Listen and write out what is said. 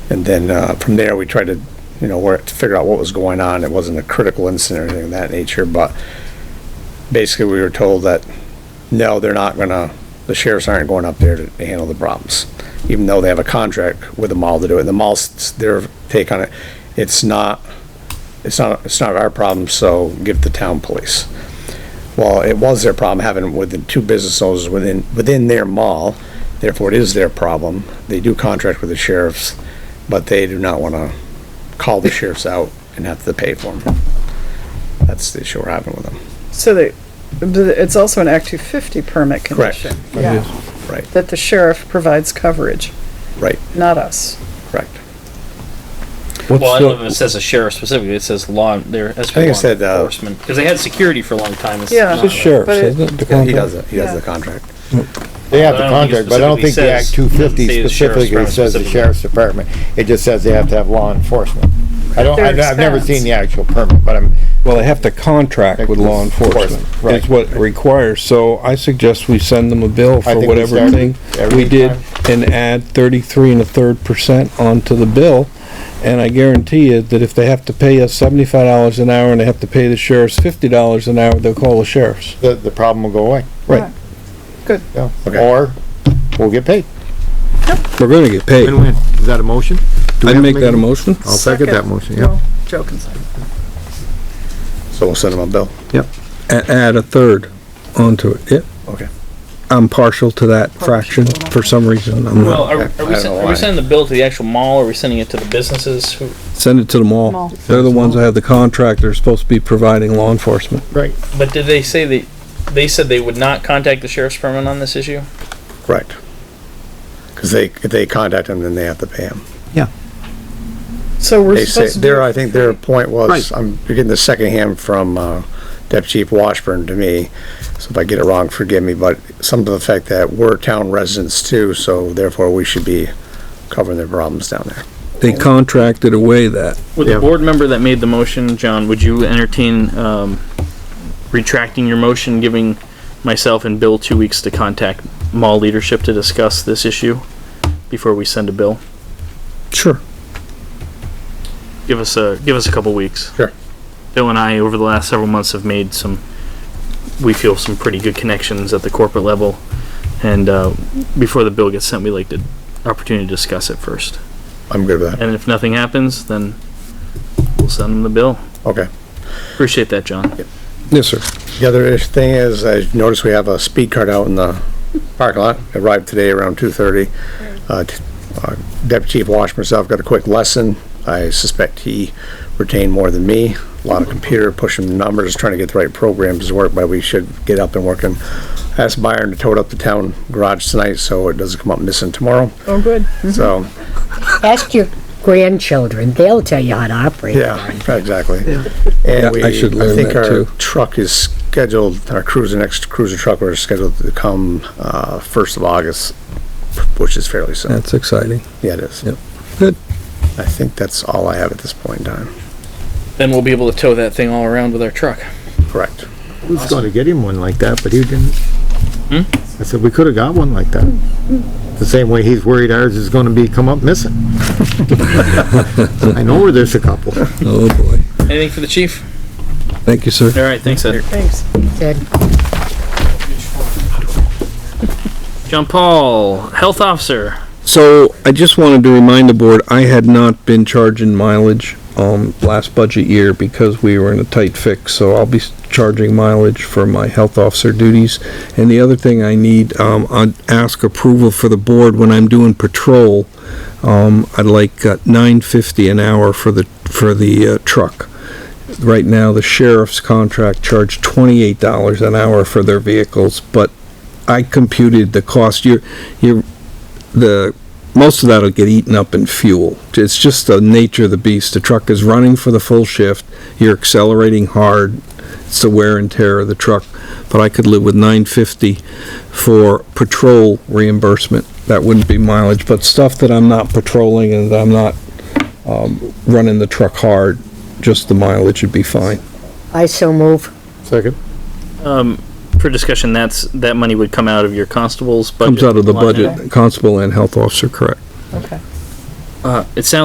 And then, uh, from there, we tried to, you know, work, to figure out what was going on. It wasn't a critical incident or anything of that nature, but basically, we were told that, no, they're not gonna, the sheriffs aren't going up there to handle the problems, even though they have a contract with the mall to do it. And the mall's, their take on it, it's not, it's not, it's not our problem, so give the town police. Well, it was their problem having with the two business owners within, within their mall, therefore it is their problem. They do contract with the sheriffs, but they do not want to call the sheriffs out and have to pay for them. That's the issue we're having with them. So that, but it's also an Act 250 permit Correct. condition. Yeah. Right, That the sheriff provides coverage, right, not us. correct. What's Well, I don't know the- if it says a sheriff specifically, it says law, there, as I for law think it said, uh, enforcement, because they had security for a long time. it's Yeah. not- The It's sheriff's, But it- isn't it? the Yeah, he contract? does, it. he does the Yeah. contract. They have I the don't think it contract, but I don't think the Act two specifically says- doesn't fifty say the sheriff's specifically says the department sheriff's department. It just says they have to have law enforcement. I don't, Their I've I've never expense. seen the actual permit, but I'm, Well, they have to contract with law enforcement. Right. It's what it requires, so I suggest we send them a bill I for think we whatever start thing every we did time. and add thirty-three and a third percent onto the bill. And I guarantee you that if they have to pay us seventy-five dollars an hour and they have to pay the sheriffs fifty dollars an hour, they'll call the sheriffs. the, the problem will go away. Right, Yeah. Okay. Or we'll get paid. we're gonna get paid. Win-win. Is that a motion? Do we I'd have to make that a motion. I'll second that motion, yeah. No, Joe can second. So we'll send him a bill. A- Add a third onto it, yep. Okay. I'm partial to that fraction for some reason. I'm Well, not. I- are, are I we, don't sen- know are why. we sending the bill to the actual mall, or are we sending it to the businesses who, Send it to the mall. Mall. They're the ones that have the contract. They're supposed to be providing law enforcement. Right. but did they say that, they said they would not contact the sheriff's department on this issue? Correct. Because they, if they contact him, then they have to pay him. So we're They say, supposed to. do- their, I think their point was, I'm getting the secondhand from, uh, Deputy Chief Washburn to me, so if I get it wrong, forgive me, but some to the fact that we're town residents too, so therefore we should be covering their problems down there. They contracted away that. Would Yeah. the board member that made the motion, John, would you entertain, um, retracting your motion, giving myself and Bill two weeks to contact mall leadership to discuss this issue before we send a bill? Sure. give us a give us a couple weeks. Sure. Bill and I over the last several months have made some we feel some pretty good connections at the corporate level and uh, before the bill gets sent we like the opportunity to discuss it first. I'm good with that. And if nothing happens then we'll send them the bill. Okay. Appreciate that, John. Yes, sir. The other ish thing is, I noticed we have a speed cart out in the parking lot. It Arrived today around two thirty. Uh, Deputy Chief Wash myself got a quick lesson. I suspect he retained more than me. A lot of computer pushing the numbers, trying to get the right programs to work, but we should get up and working. I Asked Byron to tow it up the town garage tonight, so it doesn't come up missing tomorrow. Oh, good. So, Ask your grandchildren, they'll tell you how to operate. yeah, exactly. Yeah, And we, I I should learn think that our too. truck is scheduled, our cruiser, next cruiser truck, we're scheduled to come, uh, first of August, which is fairly soon. That's exciting. Yeah, it is. Yep. Good. I think that's all I have at this point in time. Then we'll be able to tow that thing all around with our truck. Correct. Who's gonna get him one like that, but he didn't. I said, we could've got one like that. The same way he's worried ours is gonna be, come up missing. I know where there's a couple. Oh, boy. Anything for the chief? Thank you, sir. All right, thanks Ed. Thanks. Said, John Paul, health officer. So I just wanted to remind the board, I had not been charging mileage, um, last budget year because we were in a tight fix, so I'll be s- charging mileage for my health officer duties. And the other thing I need, um, I'd ask approval for the board when I'm doing patrol. Um, I'd like nine fifty an hour for the, for the, uh, truck. Right now, the sheriff's contract charged twenty-eight dollars an hour for their vehicles, but I computed the cost. You're, you're, the most of that'll get eaten up in fuel. It's just the nature of the beast. The truck is running for the full shift. You're accelerating hard. It's the wear and tear of the truck. But I could live with 950 for patrol reimbursement. That wouldn't be mileage, but stuff that I'm not patrolling and that I'm not um, running the truck hard, just the mileage would be fine. I so move. Second. For discussion, that's that money would come out of your constable's budget. Comes out of the line item. budget, constable and health officer, correct? Okay. Uh, it sounds